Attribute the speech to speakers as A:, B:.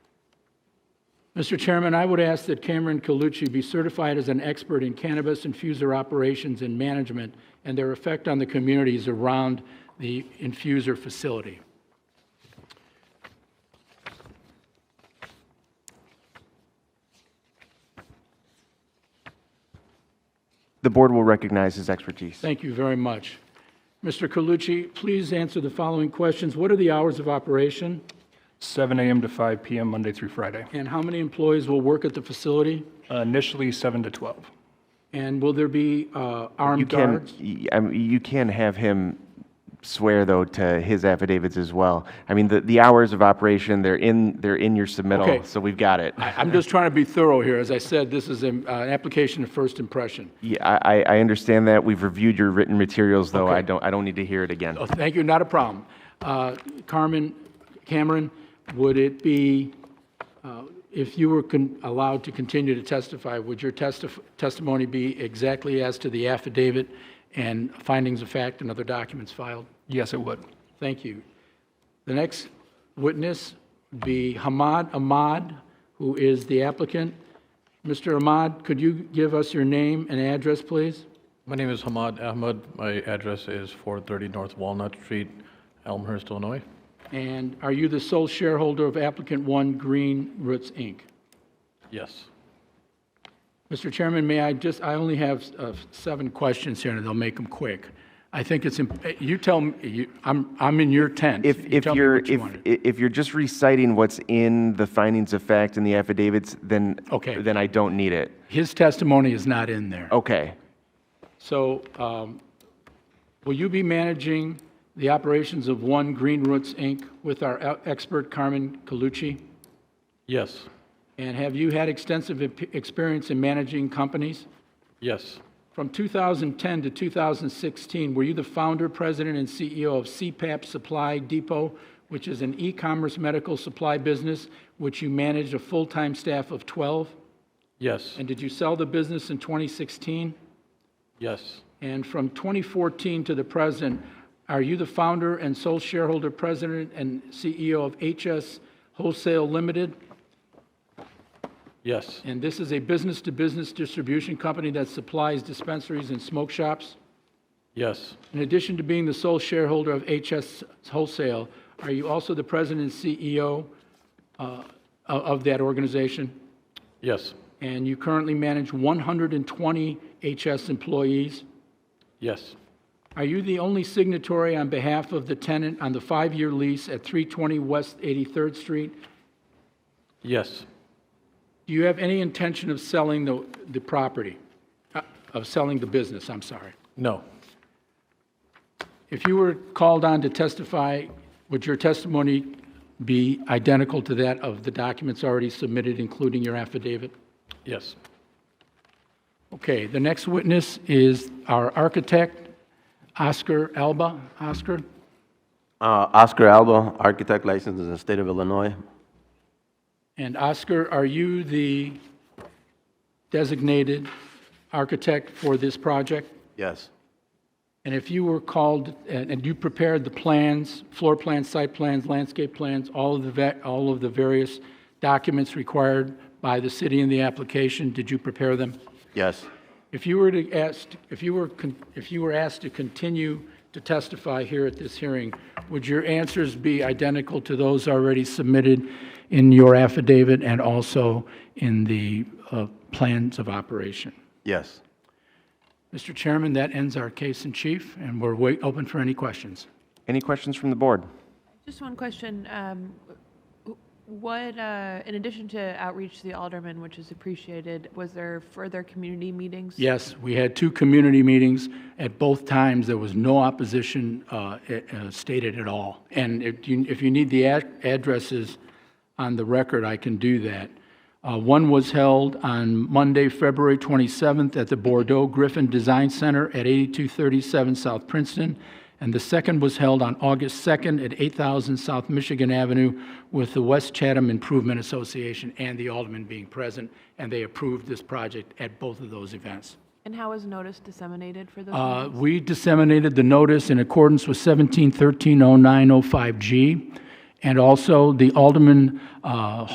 A: Mr. Chairman, I would ask that Cameron Colucci be certified as an expert in cannabis infuser operations and management and their effect on the communities around the infuser facility.
B: The board will recognize his expertise.
A: Thank you very much. Mr. Colucci, please answer the following questions. What are the hours of operation,
C: 7 AM to 5 PM, Monday through Friday.
A: and how many employees will work at the facility?
C: Uh, Initially, 7 to 12.
A: And will there be uh,
B: You
A: armed
B: can,
A: guards?
B: y- I mean, you can have him swear, though, to his affidavits as well. I mean, the, the hours of operation, they're in, they're in your
A: Okay.
B: submittal, so we've got it.
A: I- I'm just trying to be thorough here. As I said, this is an uh, application of first impression.
B: Yeah, I, I- I understand that. We've reviewed your written materials, though. I
A: Okay.
B: don't, I don't need to hear it again.
A: Oh, thank you, not a problem. Uh, Carmen, Cameron, would it be, uh, if you were con- allowed to continue to testify, would your testif- testimony be exactly as to the affidavit and findings of fact and other documents filed?
C: Yes, it would.
A: Thank you. The next witness would be Hamad Ahmad, who is the applicant. Mr. Ahmad, could you give us your name and address, please?
D: My name is Hamad Ahmed. My address is 430 North Walnut Street, Elmhurst, Illinois.
A: And are you the sole shareholder of applicant one Green Roots, Inc.?
D: Yes.
A: Mr. Chairman, may I just, I only have uh, seven questions here, and they'll make them quick. I think it's, imp- eh, you tell me, you- I'm, I'm in your tent.
B: If,
A: You
B: if
A: tell me
B: you're,
A: what you
B: if,
A: wanted.
B: i- if you're just reciting what's in the findings of fact and the affidavits, then,
A: Okay.
B: then I don't need it.
A: His testimony is not in there.
B: Okay.
A: So um, will you be managing the operations of One Green Roots, Inc. with our e- expert Carmen Colucci?
D: Yes.
A: And have you had extensive ep- experience in managing companies?
D: Yes.
A: From 2010 to 2016, were you the founder, president, and CEO of CPAP Supply Depot, which is an e-commerce medical supply business, which you managed a full-time staff of 12?
D: Yes.
A: And did you sell the business in 2016?
D: Yes.
A: And from 2014 to the present, are you the founder and sole shareholder, president, and CEO of HS Wholesale Limited?
D: Yes.
A: And this is a business-to-business distribution company that supplies dispensaries and smoke shops?
D: Yes.
A: In addition to being the sole shareholder of HS Wholesale, are you also the president and CEO uh, o- of that organization?
D: Yes.
A: And you currently manage 120 HS employees?
D: Yes.
A: Are you the only signatory on behalf of the tenant on the five-year lease at 320 West 83rd Street?
D: Yes.
A: Do you have any intention of selling the, the property, Uh, of selling the business, I'm sorry?
D: No.
A: If you were called on to testify, would your testimony be identical to that of the documents already submitted, including your affidavit?
D: Yes.
A: Okay, the next witness is our architect, Oscar Alba. Oscar?
E: Uh, Oscar Alba, architect licensed in the state of Illinois.
A: And Oscar, are you the designated architect for this project?
E: Yes.
A: And if you were called, and and you prepared the plans, floor plans, site plans, landscape plans, all of the, va- all of the various documents required by the city in the application, did you prepare them?
E: Yes.
A: If you were to ask, if you were, con- if you were asked to continue to testify here at this hearing, would your answers be identical to those already submitted in your affidavit and also in the uh, plans of operation?
E: Yes.
A: Mr. Chairman, that ends our case in chief, and we're wait, open for any questions.
B: Any questions from the board?
F: Just one question. um, w- What, uh, in addition to outreach to the aldermen, which is appreciated, was there further community meetings?
A: Yes, we had two community meetings. At both times, there was no opposition uh, eh, eh, stated at all. And if you, if you need the ad- addresses on the record, I can do that. Uh, One was held on Monday, February 27th, at the Bordeaux Griffin Design Center at 8237 South Princeton, and the second was held on August 2nd at 8000 South Michigan Avenue with the West Chatham Improvement Association and the aldermen being present, and they approved this project at both of those events.
F: And how was notice disseminated for those?
A: Uh,
F: meetings?
A: We disseminated the notice in accordance with 17130905G, and also the Alderman uh,